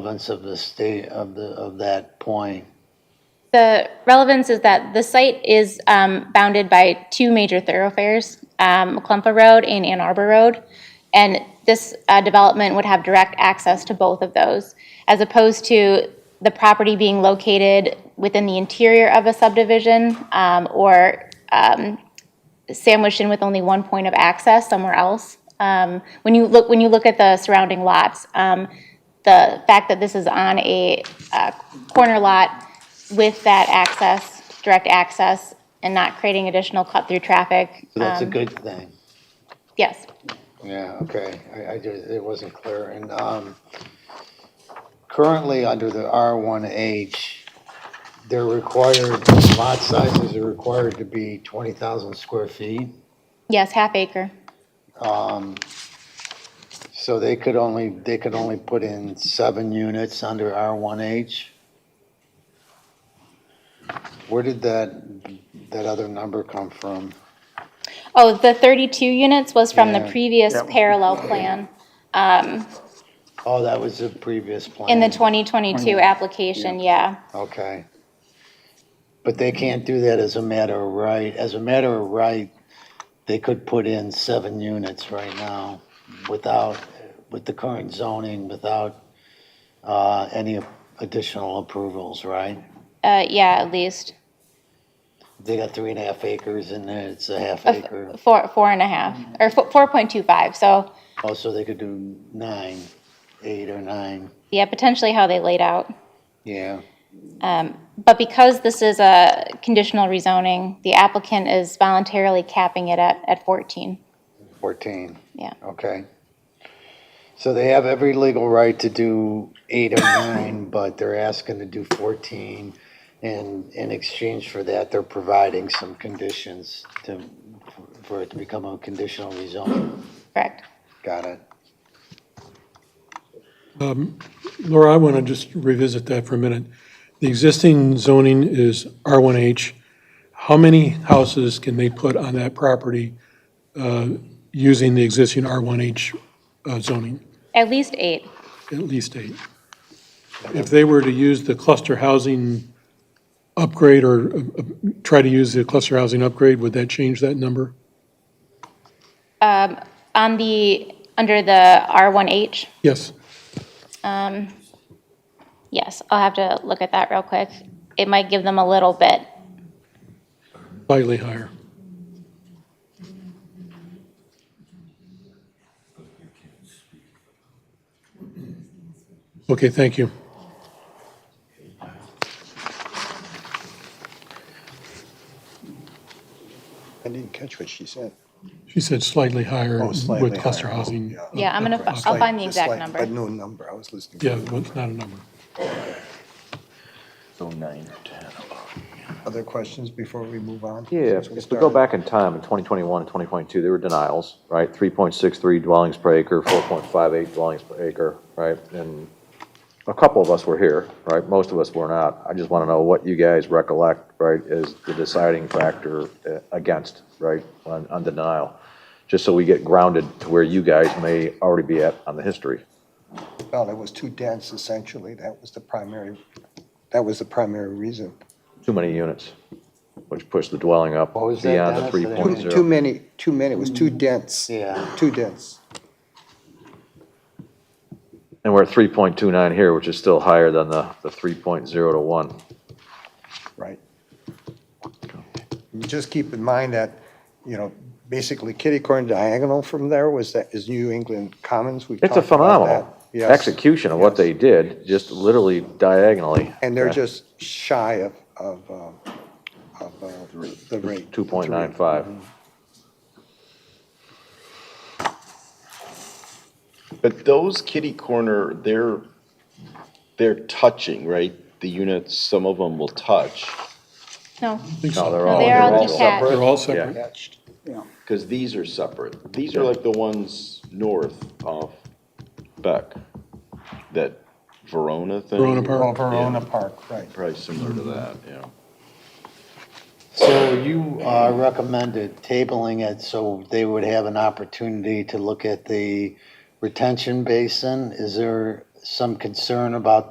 relevance of the state, of the, of that point? The relevance is that the site is um, bounded by two major thoroughfares, um, McClumpa Road and Ann Arbor Road. And this uh, development would have direct access to both of those, as opposed to the property being located within the interior of a subdivision um, or um, sandwiched in with only one point of access somewhere else. Um, When you look, when you look at the surrounding lots, um, the fact that this is on a uh, corner lot with that access, direct access, and not creating additional cut-through traffic. So That's a um, good thing. Yes. Yeah, okay, I, I just, it wasn't clear, and, um, currently, under the R one H, they're required, lot sizes are required to be twenty thousand square feet, Um, Yes, half acre. so they could only, they could only put in seven units under R one H. Where did that, that other number come from? Oh, the 32 units was from the Yeah. previous parallel plan Oh, that was the previous plan. in the 2022 application, yeah. Okay. But they can't do that as a matter of right. As a matter of right, they could put in seven units right now without, with the current zoning, without uh, any additional approvals, right? Uh, Yeah, at least, They got three and a half acres in there, it's a half Uh, f- acre. four, four and a half, or fo- 4.25, so, Also, Oh, they could do nine, eight or nine, yeah, potentially how they laid out. yeah. But because this is a conditional rezoning, the applicant is voluntarily capping it at, at 14. 14, Yeah. okay. So they have every legal right to do eight or nine, but they're asking to do 14. And in exchange for that, they're providing some conditions to, for it to become a conditional rezoning. Correct. Got it? Laura, I want to just revisit that for a minute. The existing zoning is R1H. How many houses can they put on that property uh, using the existing R1H uh, zoning? At least eight. At least eight. If they were to use the cluster housing upgrade or uh, uh, try to use the cluster housing upgrade, would that change that number? On the, under the R1H, Yes. yes, I'll have to look at that real quick. It might give them a little bit. Slightly higher. Okay, thank you. I didn't catch what she said. She said slightly higher Oh, slightly with cluster higher. housing. Yeah, I'm gonna, fi- I'll find the exact But number. no number, I was listening. Yeah, well, it's not a number. So nine or ten. Other questions before we move on? Yeah, Since if if we go started. back in time, in 2021 and 2022, there were denials, right? 3.63 dwellings per acre, 4.58 dwellings per acre, right? And a couple of us were here, right? Most of us were not. I just want to know what you guys recollect, right, is the deciding factor uh, against, right, on on the denial? Just so we get grounded to where you guys may already be at on the history. Well, it was too dense essentially, that was the primary, that was the primary reason. Too many units, which pushed the dwelling up What was that, beyond the Dennis? 3.0. Too too many, too many, it was Hmm. too dense. Yeah. Too dense. And we're at three point two nine here, which is still higher than the, the three point zero to one. Right. And Just keep in mind that, you know, basically kitty corner diagonal from there was that, is New England Commons. We It's talked a about phenomenal that. Yes. execution of what they did, just literally diagonally. And they're Okay. just shy of, of, um, of uh, the rate. Two point nine five. But those kitty corner, they're, they're touching, right? The units, some of them will touch, No, I think No, so. they're no, all, they they're are all all detached. They're all separate. Yeah, because these are separate. These are like the ones north of Beck, that Verona thing. Verona Park. Well, Verona Park, right. Probably similar to that, yeah. So you uh, recommended tabling it so they would have an opportunity to look at the retention basin? Is there, some concern about